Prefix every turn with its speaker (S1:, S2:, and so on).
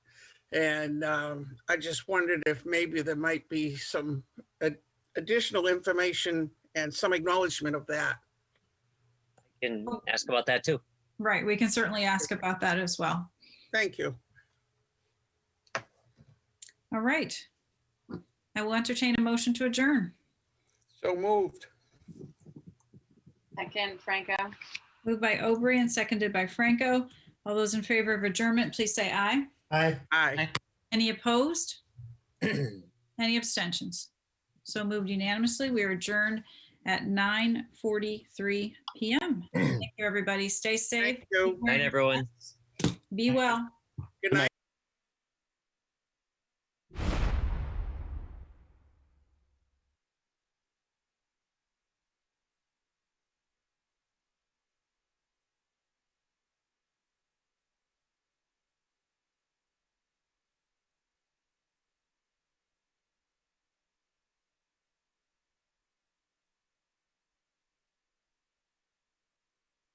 S1: And um, I just wondered if maybe there might be some ad- additional information and some acknowledgement of that.
S2: Can ask about that too.
S3: Right, we can certainly ask about that as well.
S1: Thank you.
S3: All right. I will entertain a motion to adjourn.
S1: So moved.
S4: Second, Franco.
S3: Moved by Aubrey and seconded by Franco. All those in favor of adjournment, please say aye.
S5: Aye.
S1: Aye.
S3: Any opposed? Any abstentions? So moved unanimously. We are adjourned at 9:43 PM. Thank you, everybody. Stay safe.
S1: Thank you.
S2: Night, everyone.
S3: Be well.
S1: Good night.